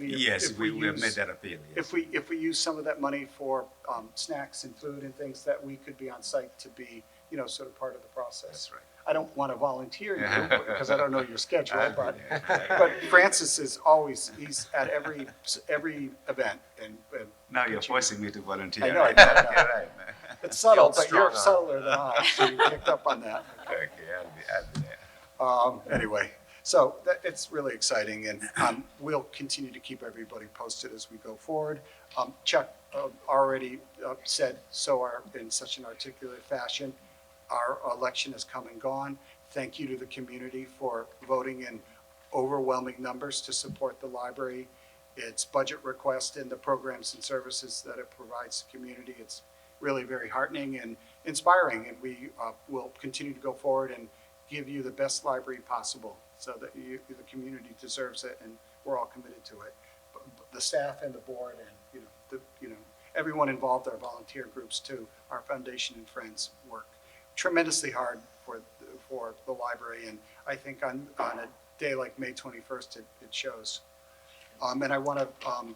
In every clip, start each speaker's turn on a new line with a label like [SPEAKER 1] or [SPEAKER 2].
[SPEAKER 1] Maybe if-
[SPEAKER 2] Yes,
[SPEAKER 1] if
[SPEAKER 2] we we have
[SPEAKER 1] use-
[SPEAKER 2] made that appeal, yes.
[SPEAKER 1] If we, if we use some of that money for um, snacks and food and things that we could be on site to be, you know, sort of part of the process.
[SPEAKER 2] That's right.
[SPEAKER 1] I don't want to volunteer you because I don't know your schedule,
[SPEAKER 2] I agree,
[SPEAKER 1] Oh, but,
[SPEAKER 2] yeah.
[SPEAKER 1] but Francis is always, he's at every, every event and and
[SPEAKER 2] Now you're forcing me to volunteer.
[SPEAKER 1] I know, I
[SPEAKER 2] right?
[SPEAKER 1] know, I know.
[SPEAKER 2] You're right, man.
[SPEAKER 1] it's subtle, but
[SPEAKER 3] strong
[SPEAKER 1] you're
[SPEAKER 3] arm.
[SPEAKER 1] subtler than I, so you picked up on that.
[SPEAKER 2] Okay, I'll be, I'll be there.
[SPEAKER 1] Um, anyway, so that, it's really exciting and, um, we'll continue to keep everybody posted as we go forward. Um, Chuck, uh, already, uh, said so are, in such an articulate fashion, our election has come and gone. Thank you to the community for voting in overwhelming numbers to support the library, its budget request and the programs and services that it provides the community. It's really very heartening and inspiring, and we, uh, will continue to go forward and give you the best library possible so that you, the community deserves it and we're all committed to it. B- b- The staff and the board and, you know, the, you know, everyone involved, our volunteer groups too, our foundation and friends work tremendously hard for, the- for the library. And I think on, on a day like May 21st, it, it shows. Um, and I want to, um,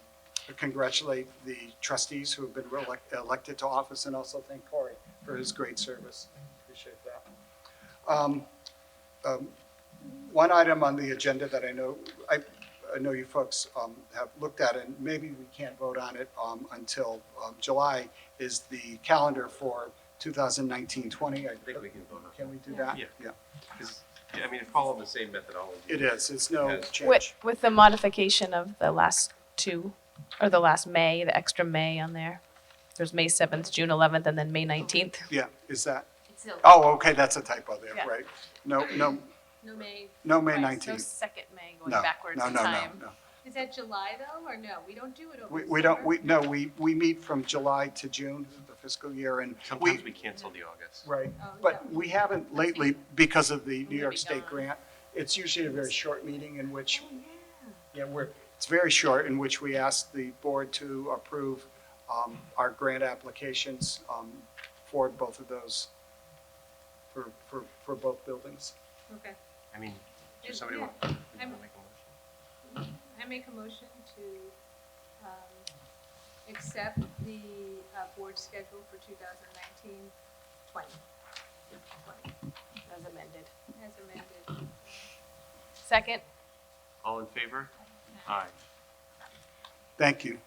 [SPEAKER 1] congratulate the trustees who have been reelect- elected to office and also thank Corey for his great service. Appreciate that. Um, um, One item on the agenda that I know, I, I know you folks um, have looked at, and maybe we can't vote on it um, until um, July, is the calendar for 2019-20. I
[SPEAKER 3] think we can vote on
[SPEAKER 1] Can we do that?
[SPEAKER 3] Yeah.
[SPEAKER 1] Yeah,
[SPEAKER 3] 'Cause, yeah, I mean, it followed the same methodology.
[SPEAKER 1] it is, it's no
[SPEAKER 3] Yes.
[SPEAKER 1] change.
[SPEAKER 4] With, with the modification of the last two, or the last May, the extra May on there. There's May 7th, June 11th, and then May 19th.
[SPEAKER 1] Yeah, is that,
[SPEAKER 5] It's no,
[SPEAKER 1] oh, okay, that's a typo there,
[SPEAKER 4] Yeah.
[SPEAKER 1] right? No, no,
[SPEAKER 5] no May.
[SPEAKER 1] no, May
[SPEAKER 4] Right, so
[SPEAKER 1] 19th.
[SPEAKER 4] second May going
[SPEAKER 1] No,
[SPEAKER 4] backwards
[SPEAKER 1] no,
[SPEAKER 4] in
[SPEAKER 1] no, no,
[SPEAKER 4] time.
[SPEAKER 1] no.
[SPEAKER 5] Is that July though, or no? We don't do it over
[SPEAKER 1] We,
[SPEAKER 5] the
[SPEAKER 1] we don't,
[SPEAKER 5] summer?
[SPEAKER 1] we, no, we, we meet from July to June, the fiscal year, and we,
[SPEAKER 3] Sometimes we cancel the August.
[SPEAKER 1] Right,
[SPEAKER 5] Oh,
[SPEAKER 1] but
[SPEAKER 5] yeah.
[SPEAKER 1] we haven't lately because of the New
[SPEAKER 5] Maybe
[SPEAKER 1] York State
[SPEAKER 5] not.
[SPEAKER 1] grant. It's usually a very short meeting in which,
[SPEAKER 5] Oh,
[SPEAKER 1] yeah,
[SPEAKER 5] yeah.
[SPEAKER 1] we're, it's very short, in which we ask the board to approve um, our grant applications um, for both of those, for, for, for both buildings.
[SPEAKER 5] Okay.
[SPEAKER 3] I mean,
[SPEAKER 5] Yeah,
[SPEAKER 3] does somebody
[SPEAKER 5] yeah.
[SPEAKER 3] want to make a
[SPEAKER 5] I'm-
[SPEAKER 3] motion?
[SPEAKER 5] I make a motion to um, accept the uh, board schedule for 2019, 20,
[SPEAKER 4] As amended.
[SPEAKER 5] as amended.
[SPEAKER 4] Second,
[SPEAKER 3] All in favor? Aye.
[SPEAKER 1] Thank you.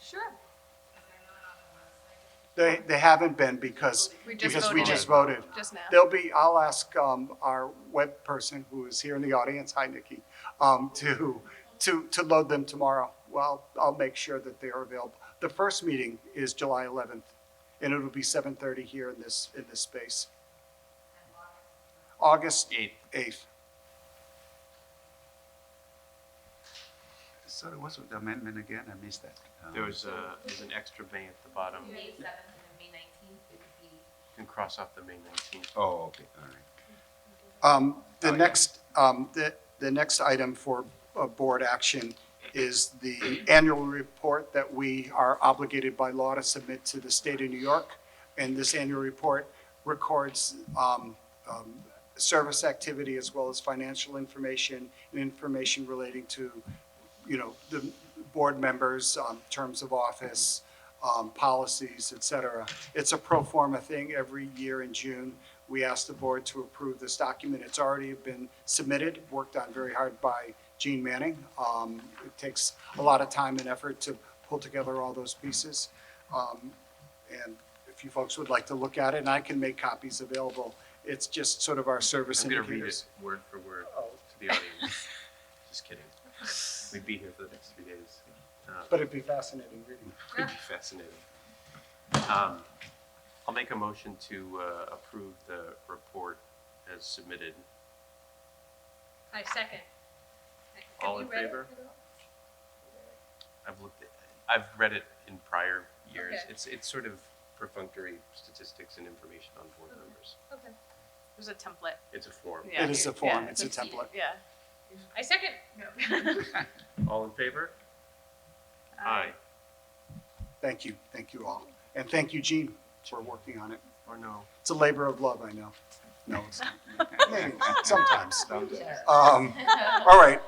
[SPEAKER 5] Sure.
[SPEAKER 1] They, they haven't been because,
[SPEAKER 4] We just
[SPEAKER 1] because we
[SPEAKER 4] voted
[SPEAKER 1] just
[SPEAKER 4] it.
[SPEAKER 1] voted.
[SPEAKER 4] just now.
[SPEAKER 1] There'll be, I'll ask um, our web person who is here in the audience, hi Nikki, um, to, to, to load them tomorrow. Well, I'll make sure that they are available. The first meeting is July 11th, and it'll be 7:30 here in this, in this space. August
[SPEAKER 3] Eighth.
[SPEAKER 1] 8th.
[SPEAKER 2] Sorry, what's the amendment again? I missed that. Um,
[SPEAKER 3] There was a, there's an extra May at the bottom.
[SPEAKER 6] May seventh and then May nineteenth, it would be
[SPEAKER 3] You can cross off the May nineteenth.
[SPEAKER 2] Oh, okay, all right.
[SPEAKER 1] Um,
[SPEAKER 3] Oh,
[SPEAKER 1] The
[SPEAKER 3] yeah.
[SPEAKER 1] next, um, the, the next item for uh, board action is the annual report that we are obligated by law to submit to the state of New York. And this annual report records um, um, service activity as well as financial information and information relating to, you know, the board members, um, terms of office, um, policies, et cetera. It's a pro forma thing every year in June. We ask the board to approve this document. It's already been submitted, worked on very hard by Gene Manning. Um, It takes a lot of time and effort to pull together all those pieces. Um, And if you folks would like to look at it, and I can make copies available, it's just sort of our service
[SPEAKER 3] I'm gonna read
[SPEAKER 1] indicators.
[SPEAKER 3] it word for word
[SPEAKER 1] Oh,
[SPEAKER 3] to the audience. Just kidding. We'd be here for the next three days. Uh,
[SPEAKER 1] But it'd be fascinating reading.
[SPEAKER 3] Could
[SPEAKER 5] Ah,
[SPEAKER 3] be fascinating. Um, I'll make a motion to uh, approve the report as submitted.
[SPEAKER 5] I second. Have
[SPEAKER 3] All
[SPEAKER 5] you
[SPEAKER 3] in
[SPEAKER 5] read it
[SPEAKER 3] favor?
[SPEAKER 5] at all?
[SPEAKER 3] I've looked at, I've read it in prior years.
[SPEAKER 5] Okay.
[SPEAKER 3] It's, it's sort of perfunctory statistics and information on board members.
[SPEAKER 5] Okay.
[SPEAKER 4] There's a template.
[SPEAKER 3] It's a form.
[SPEAKER 4] Yeah.
[SPEAKER 1] It is a form,
[SPEAKER 4] yeah,
[SPEAKER 1] it's a template.
[SPEAKER 4] Yeah.
[SPEAKER 5] I second.
[SPEAKER 3] All in favor?
[SPEAKER 4] Aye.
[SPEAKER 1] Thank you, thank you all. And thank you, Gene, for working on it.
[SPEAKER 3] Or no?
[SPEAKER 1] It's a labor of love, I know. No, it's- maybe, sometimes.
[SPEAKER 2] Sometimes.
[SPEAKER 1] Um, All right,